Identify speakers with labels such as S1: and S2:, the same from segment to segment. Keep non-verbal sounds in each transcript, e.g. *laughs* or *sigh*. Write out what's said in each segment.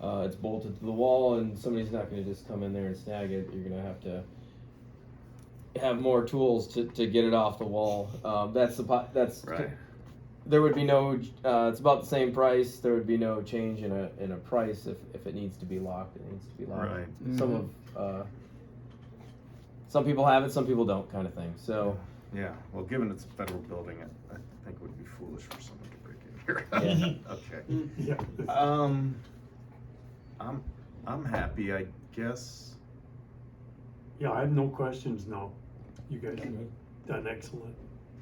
S1: Uh, it's bolted to the wall, and somebody's not going to just come in there and snag it. You're going to have to have more tools to, to get it off the wall. Um, that's the po- that's
S2: Right.
S1: there would be no. Uh, it's about the same price. There would be no change in a in a price if, if it needs to be locked. It needs to be locked.
S2: Right.
S1: Some of uh, some people have it, some people don't, kind of thing. So
S2: Yeah, well, given it's a federal building, I, I think it would be foolish for someone to break in here.
S1: Yeah.
S2: *laughs* Okay.
S3: Yeah.
S2: Um, I'm, I'm happy, I guess.
S3: Yeah, I have no questions now. You guys have done excellent.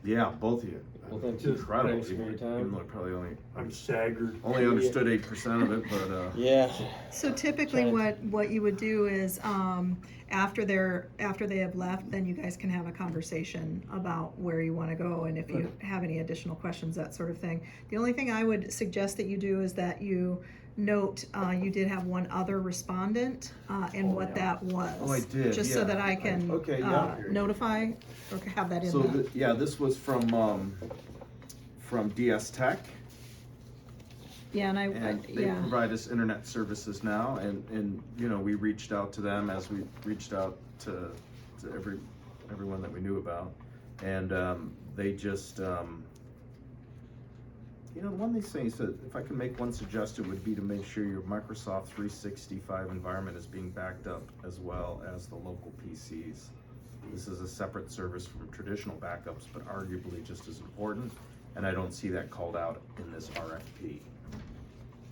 S2: Yeah, both of you.
S1: well, thank you.
S3: Just
S2: Incredible.
S1: Thanks for your
S2: Even
S1: time.
S2: though I probably only,
S3: I'm staggered.
S2: only understood eight percent of it,
S1: *laughs*
S2: but, uh,
S1: Yeah.
S4: So typically
S1: Try to-
S4: what, what you would do is, um, after they're, after they have left, then you guys can have a conversation about where you wanna go and if you have any additional questions, that sort of thing. The only thing I would suggest that you do is that you note, uh, you did have one other respondent, uh, and what that was.
S2: Oh, I did,
S4: Just
S2: yeah.
S4: so that I can,
S2: Okay, yeah.
S4: uh, notify or have that in
S2: so,
S4: the,
S2: th- yeah, this was from, um, from DS Tech.
S4: yeah, and I, I-
S2: And they
S4: yeah.
S2: provide us internet services now, and, and, you know, we reached out to them as we reached out to, to every, everyone that we knew about. And, um, they just, um, you know, one of these things that, if I can make one suggestion, would be to make sure your Microsoft three sixty-five environment is being backed up as well as the local PCs. This is a separate service from traditional backups, but arguably just as important, and I don't see that called out in this RFP.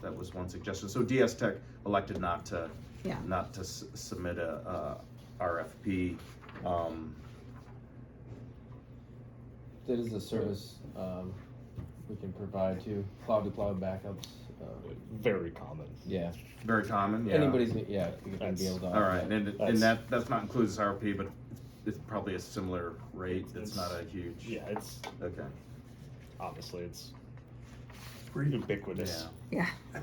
S2: That was one suggestion. So DS Tech elected not to,
S4: Yeah.
S2: not to s- submit a, uh, RFP. Um,
S1: That is a service um, we can provide to cloud to cloud backups. Uh,
S5: very common.
S1: yeah.
S2: very common, yeah.
S1: Anybody's yeah, you can be
S5: That's-
S1: able to.
S2: All right, and, and
S5: That's-
S2: that, that's not included as RP, but it's probably a similar rate, it's
S5: It's-
S2: not a huge.
S5: Yeah, it's
S2: Okay.
S5: obviously it's pretty ubiquitous.
S4: Yeah,
S2: *laughs*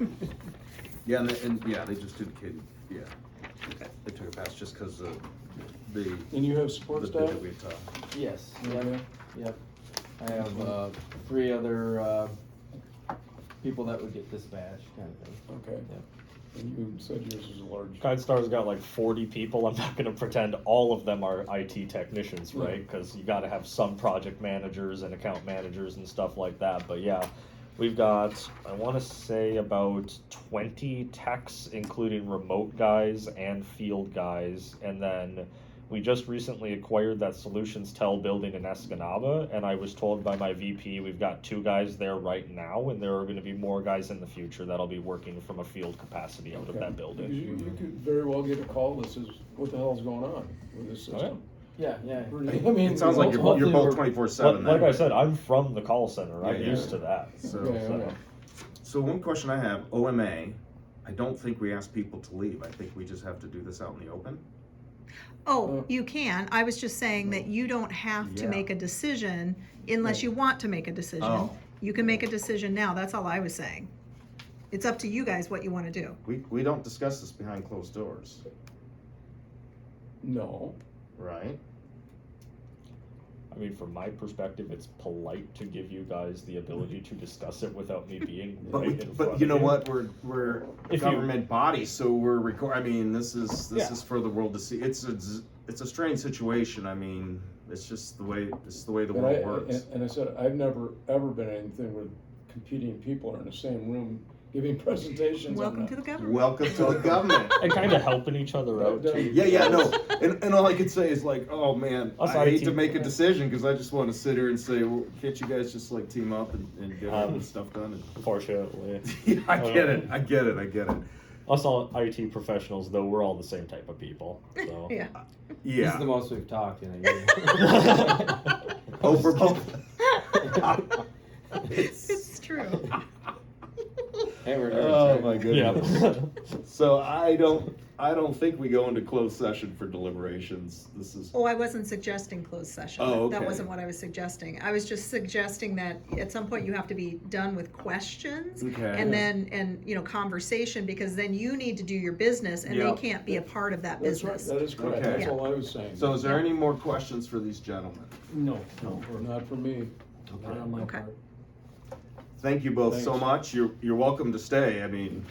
S2: Yeah, and, they- and, yeah, they just indicated, yeah. They took a pass just because of the,
S6: And you have
S2: the
S6: support
S2: bid
S6: staff?
S2: that we had talked.
S1: Yes. Yep. Yep. I have uh, three other uh, people that would get dispatched, kind of thing.
S6: Okay. And you said yours is a large.
S5: GuideStar's got like 40 people. I'm not going to pretend all of them are IT technicians,
S6: Yeah.
S5: right? Because you got to have some project managers and account managers and stuff like that. But yeah, we've got, I want to say about 20 techs, including remote guys and field guys. And then we just recently acquired that Solutions Tell building in Escanaba. And I was told by my VP we've got two guys there right now, and there are going to be more guys in the future that'll be working from a field capacity out of
S6: Okay.
S5: that building.
S6: You, you could very well get a call that says, what the hell's going on with this
S5: Oh, yeah.
S6: system?
S1: Yeah. *laughs* Yeah.
S6: Really, I mean.
S2: It sounds like you're, you're
S5: hopefully
S2: both
S5: we're-
S2: twenty-four
S5: Like,
S2: seven
S5: like I said, I'm from the call center. I'm
S2: Yeah, yeah.
S5: used to that.
S2: So-
S6: Yeah, yeah, yeah.
S2: So one question I have, OMA, I don't think we ask people to leave, I think we just have to do this out in the open.
S4: Oh,
S6: Uh,
S4: you can. I was just saying that you don't have to
S2: Yeah.
S4: make a decision unless
S6: Right.
S4: you want to make a decision.
S2: Oh.
S4: You can make a decision now. That's all I was saying. It's up to you guys what you want to do.
S2: We, we don't discuss this behind closed doors,
S6: No,
S2: right?
S5: I mean, from my perspective, it's polite to give you guys the ability to discuss it without
S2: *laughs*
S5: me being
S2: But,
S5: right
S2: we,
S5: in front
S2: but
S5: of
S2: you know what, we're, we're a
S5: If you-
S2: government body, so we're record, I mean, this is, this
S5: Yeah.
S2: is for the world to see, it's a, z- it's a strange situation, I mean, it's just the way, it's the way the
S6: but I,
S2: world works.
S6: and, and I said, I've never, ever been in anything where competing people are in the same room giving *laughs* presentations on
S4: Welcome
S6: that.
S4: to the government.
S2: Welcome to the government. *laughs*
S5: And kind of helping each other out too.
S2: Yeah, yeah, no, and, and all I could say is like, oh man,
S5: Us
S2: I hate
S5: IT.
S2: to make a decision because I just want to sit here and say, well, can't you guys just like team up and, and get all this stuff done? *laughs*
S5: Unfortunately,
S2: And, I get it, I get it, I get it.
S5: us all IT professionals, though, we're all the same type of people. So.
S4: *laughs* Yeah.
S1: This is the
S2: Yeah.
S1: most we've talked in a
S2: *laughs*
S1: year.
S2: Oh, for both.
S4: It's true.
S1: *laughs* hey, we're nerds,
S2: Oh
S1: right?
S2: my
S5: Yeah.
S2: goodness.
S5: *laughs*
S2: So I don't, I don't think we go into closed session for deliberations. This is.
S4: Oh, I wasn't suggesting closed session.
S2: Oh,
S4: That
S2: okay.
S4: wasn't what I was suggesting. I was just suggesting that at some point you have to be done with questions
S2: Okay.
S4: and then, and, you know, conversation, because then you need to do your business and they
S2: Yeah.
S4: can't be a part of that
S6: That's right,
S4: business.
S6: that is correct,
S2: Okay.
S6: that's all I was saying.
S2: So is there any more questions for these gentlemen?
S3: No, no, we're
S6: Not for me,
S2: Okay.
S6: not on my
S4: Okay.
S6: part.
S2: Thank you both so
S6: Thanks.
S2: much. You're, you're welcome to stay. I mean,